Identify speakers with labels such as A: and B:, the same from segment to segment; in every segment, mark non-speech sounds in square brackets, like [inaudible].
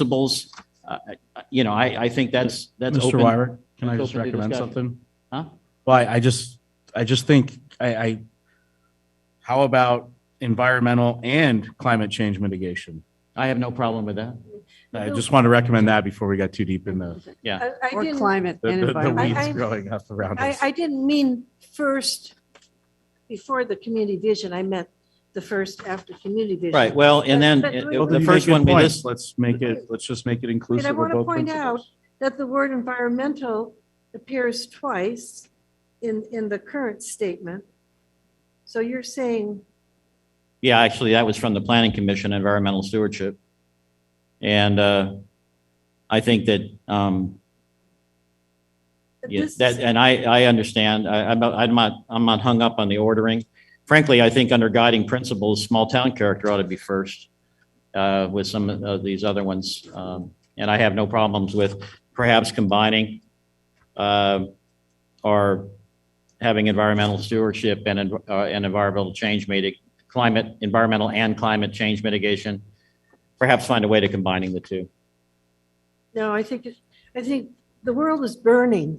A: principles, uh, I- you know, I, I think that's, that's
B: Mr.
A: open.
B: Wyrick, can I
A: that's
B: just
A: open to
B: recommend
A: discussion.
B: something?
A: Huh?
B: Well, I I just, I just think, I, I, how about environmental and climate change mitigation?
A: I have no problem with that.
B: I just want to recommend that before we got too deep in the,
A: Yeah. [laughs]
C: I- I
D: Or
C: didn't,
D: climate
B: the-
D: and
B: the the
D: environment.
B: weeds
C: I-
B: growing up around
C: I,
B: us.
C: I didn't mean first, before the community vision, I meant the first after community vision.
A: Right, well, and then
C: But- but-
A: uh,
B: Well,
A: the
B: you
A: first
B: make
A: one,
B: good
A: we
B: points.
A: just,
B: Let's make it, let's just make it inclusive of
C: wanna
B: both
C: point
B: principles.
C: That the word environmental appears twice in, in the current statement. So you're saying,
A: yeah, actually, that was from the Planning Commission, environmental stewardship. And uh, I think that, um,
C: that
A: Yeah,
C: this,
A: that, and I, I understand. I, I'm not, I'm not, I'm not hung up on the ordering. Frankly, I think under guiding principles, small town character ought to be first uh, with some of these other ones. Um, And I have no problems with perhaps combining uh, or having environmental stewardship and, en- uh, and environmental change mitig, climate, environmental and climate change mitigation. Perhaps find a way to combining the two.
C: no, I think, it- I think the world is burning.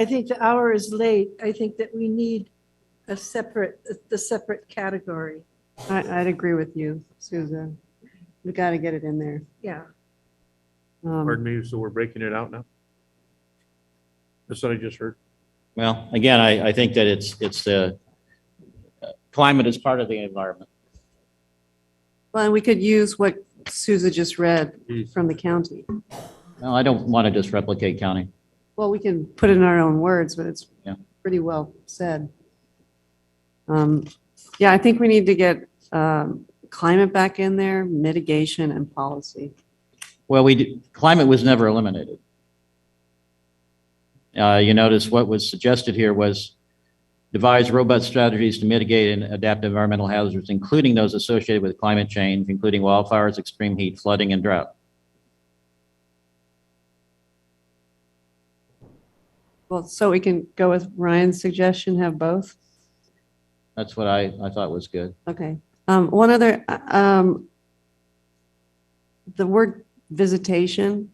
C: I think the hour is late. I think that we need a separate, the separate category.
D: I, I'd agree with you, Susan. We got to get it in there.
C: Yeah,
D: Um,
E: Pardon me, so we're breaking it out now? That's what I just heard.
A: Well, again, I, I think that it's, it's, uh, climate is part of the environment.
D: Well, and we could use what Susan just read from the county.
A: No, I don't want to just replicate county.
D: Well, we can put it in our own words, but it's
A: Yeah.
D: pretty well said. Um, Yeah, I think we need to get um, climate back in there, mitigation and policy.
A: Well, we, did- climate was never eliminated. Uh, you notice what was suggested here was devise robust strategies to mitigate and adapt environmental hazards, including those associated with climate change, including wildfires, extreme heat, flooding, and drought.
D: Well, so we can go with Ryan's suggestion, have both?
A: That's what I, I thought was good.
D: Okay. Um, one other, um, the word visitation,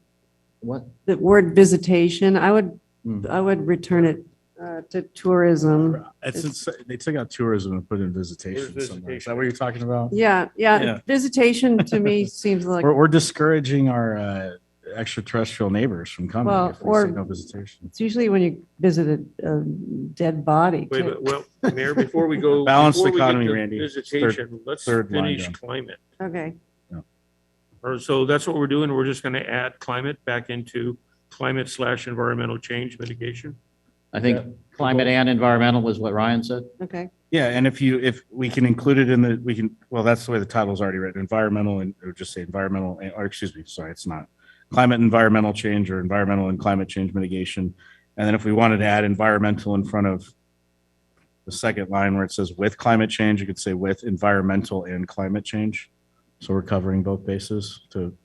A: What?
D: the word visitation, I would,
A: Hmm.
D: I would return it, uh, to tourism.
B: It's, it's- they took out tourism and put in visitation
E: Where's
B: somewhere. Is
E: visitation?
B: that what you're talking about?
D: Yeah,
B: Yeah.
D: yeah. Visitation to me seems like,
B: We're, we're discouraging our uh, extraterrestrial neighbors from coming
D: Well,
B: if we
D: or-
B: say no visitation.
D: it's usually when you visit a, a dead body.
E: Wait,
D: too.
E: but, well, Mayor, before
B: [laughs]
E: we go.
B: Balanced
E: before we get
B: economy,
E: to
B: Randy.
E: Visitation, let's
B: third line
E: finish
B: down.
E: climate.
D: Okay.
E: Or so that's what we're doing. We're just gonna add climate back into climate slash environmental change mitigation.
A: I think climate and environmental was what Ryan said.
D: Okay.
B: Yeah, and if you, if we can include it in the, we can, well, that's the way the title's already written, environmental and, or just say environmental, and- or excuse me, sorry, it's not. Climate and environmental change or environmental and climate change mitigation. And then if we wanted to add environmental in front of the second line where it says with climate change, you could say with environmental and climate change. So we're covering both bases to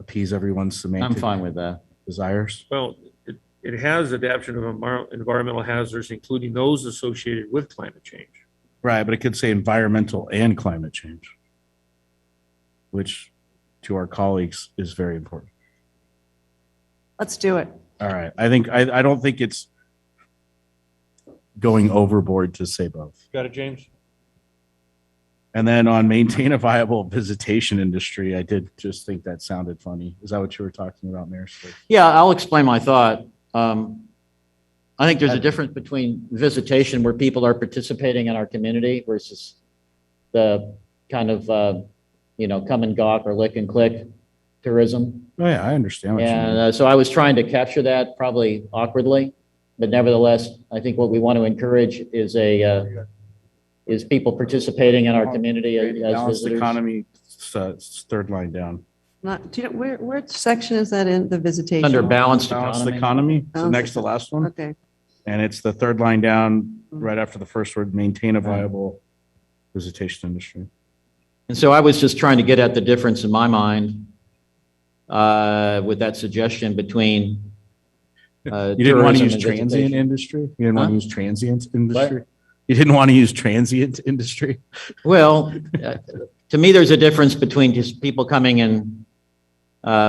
B: appease everyone's
A: I'm
B: semantic
A: fine with that.
B: desires.
E: Well, it, it has adaption of envir- environmental hazards, including those associated with climate change.
B: Right, but it could say environmental and climate change, which to our colleagues is very important.
D: Let's do it.
B: All right, I think, I, I don't think it's going overboard to say both.
E: Got it, James?
B: And then on maintain a viable visitation industry, I did just think that sounded funny. Is that what you were talking about, Mayor? Slick?
A: Yeah, I'll explain my thought. Um, I think there's a difference between visitation where people are participating in our community versus the kind of, uh, you know, come and gawk or lick and click tourism.
B: Oh, yeah, I understand what you
A: And
B: mean.
A: uh, so I was trying to capture that probably awkwardly, but nevertheless, I think what we want to encourage is a, uh, is people participating in our community as as
B: Balanced
A: visitors.
B: economy, s- uh, s- third line down.
D: Not, do you know, where, where section is that in the visitation?
A: Under balanced
B: Balanced
A: economy.
B: economy, so
D: Balanced
B: next to last one.
D: Okay.
B: And it's the third line down, right after the first word, maintain a viable visitation industry.
A: And so I was just trying to get at the difference in my mind uh, with that suggestion between. uh, You
B: You didn't want to use transient industry? You didn't want
A: Huh?
B: to use transient industry? You didn't want to use transient [laughs] industry?
A: Well, uh, to me, there's a difference between just people coming and Uh,